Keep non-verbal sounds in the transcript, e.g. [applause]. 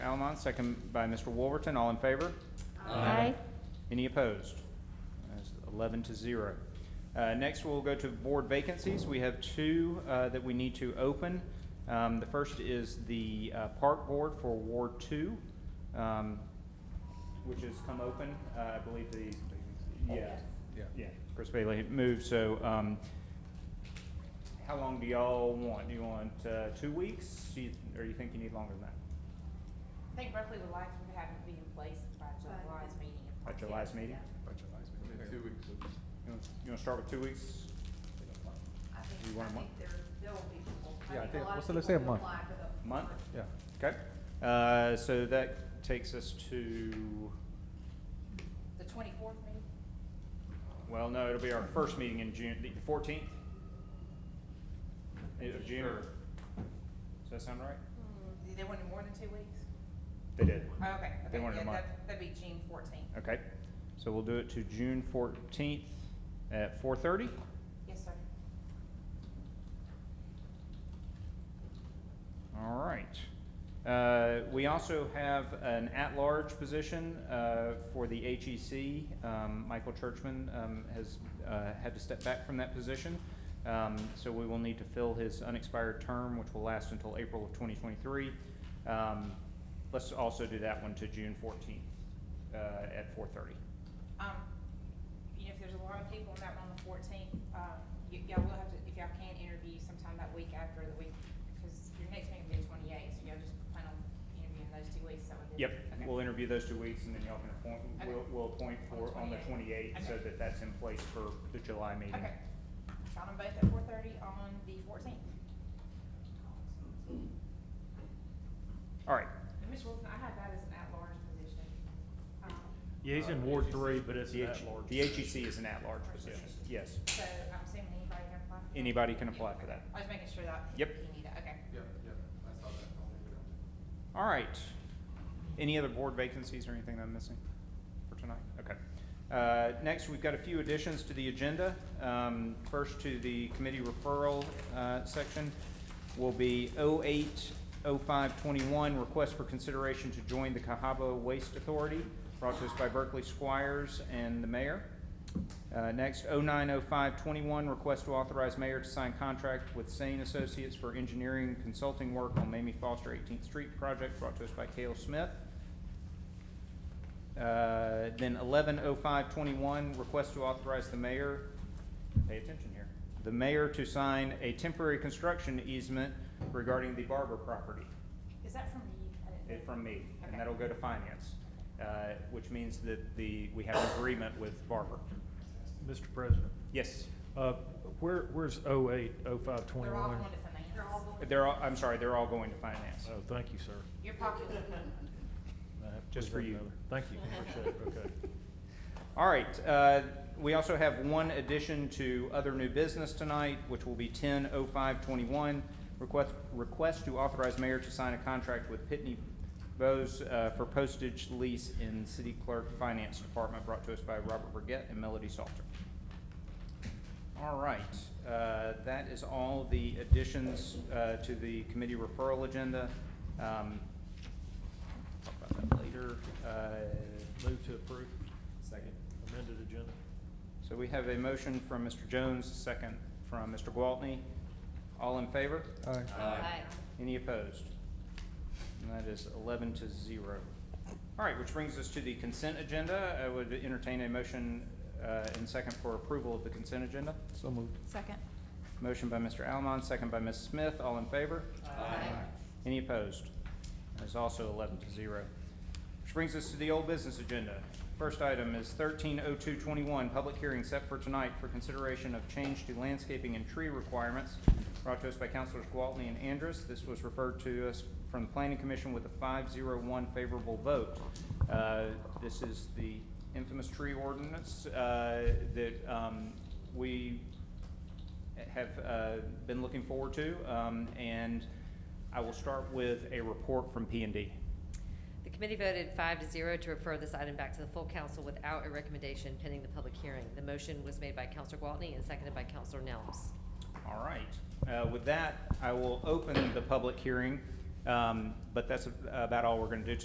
Valmont, second by Mr. Wolverton. All in favor? Aye. Any opposed? That's eleven to zero. Uh, next, we'll go to board vacancies. We have two, uh, that we need to open. Um, the first is the, uh, park board for Ward Two, um, which has come open, uh, I believe the, yeah. Yeah. Yeah, Chris Bailey had moved, so, um, how long do y'all want? Do you want, uh, two weeks? Do you, or you think you need longer than that? I think roughly the lights would have to be in place by July's meeting. if By not July's yet. meeting? By July's meeting. Two weeks. You wanna- you wanna start with two weeks? I You think, I want a month? think there, there will be people, Yeah, I I think think- a lot of let's- people let's say a will month. apply for the. Month? Yeah, Okay, uh, so that takes us to, The twenty-fourth meeting? well, no, it'll be our first meeting in June, the fourteenth? Of June, or- does that sound right? Did They wanted more than two weeks? They did. Oh, Okay, They okay, wanted a yeah, month. that, that'd be June fourteenth. Okay, so we'll do it to June fourteenth at four thirty? Yes, sir. All right. Uh, We also have an at-large position uh, for the HEC. Um, Michael Churchman um, has uh, had to step back from that position, Um, so we will need to fill his unexpired term, which will last until April of 2023. Um, Let's also do that one to June 14th uh, at 4:30. Um, you know, if there's a lot of people on that one on the fourteenth, um, y- y'all will have to, if y'all can interview sometime that week after the week, because your next meeting will be the twenty-eighth, so y'all just plan on interviewing those two weeks, so. Yep, Okay. we'll interview those two weeks, and then y'all can appoint, Okay. we'll- we'll appoint for, on the 28th, so Okay. that that's in place for the July meeting. Okay, got them both at four thirty on the fourteenth. All right, Ms. Wilson, I had that as an at-large position. Um, Yeah, he's in Ward Three, but it's The an H- at-large. The HEC is an at-large position, yes. So I'm assuming anybody can apply? for that? Anybody can apply for that. I was making sure that. Yep. You need it, okay. Yep, yep, I saw that. I'll leave it on there. All right. Any other board vacancies or anything that I'm missing for tonight? Okay. Uh, Next, we've got a few additions to the agenda. Um, First to the committee referral uh, section will be 080521, request for consideration to join the Cahaba Waste Authority, brought to us by Berkeley Squires and the mayor. Uh, Next, 090521, request to authorize mayor to sign contract with Sane Associates for engineering consulting work on Mamie Foster 18th Street project, brought to us by Cale Smith. Uh, Then 110521, request to authorize the mayor, pay attention here, the mayor to sign a temporary construction easement regarding the Barber property Is that from me? I didn't- it from me, and Okay. that'll go to finance, uh, which means that the, we have an agreement with Barber. Mr. President, Yes? uh, where, where's oh eight, oh five They're all twenty-one? going to finance. They're all going. They're all, I'm sorry, they're all going to finance. Oh, thank you, sir. You're popular. That Just was for you. another- Thank you, appreciate it, okay. [laughs] All right, uh, we also have one addition to other new business tonight, which will be ten oh five twenty-one. Request, request to authorize mayor to sign a contract with Pitney Bowes, uh, for postage lease in city clerk finance department, brought to us by Robert Burgett and Melody Salter. All right, uh, that is all the additions, uh, to the committee referral agenda. Um, talk about that later, uh, Move to approve second. amended agenda. so we have a motion from Mr. Jones, a second from Mr. Gwaltney. All in favor? Aye. Any opposed? And that is eleven to zero. All right, which brings us to the consent agenda. I would entertain a motion uh, in second for approval of the consent agenda. So moved. [laughs] Second. Motion by Mr. Almond, second by Ms. Smith. All in favor? Aye. Any opposed? That is also eleven to zero. Which brings us to the old business agenda. First item is thirteen oh two twenty-one, public hearing set for tonight for consideration of change to landscaping and tree requirements brought to us by Councilors Gwaltney and Andrus. This was referred to us from the Planning Commission with a five zero one favorable vote. Uh, this is the infamous tree ordinance, uh, that, um, we have uh, been looking forward to, um, and I will start with a report from P and D. The committee voted five to zero to refer this item back to the full council without a recommendation pending the public hearing. The motion was made by Counselor Gwaltney and seconded by Counselor Nels. All right, Uh, with that, I will open the public hearing, um, but that's about all we're going to do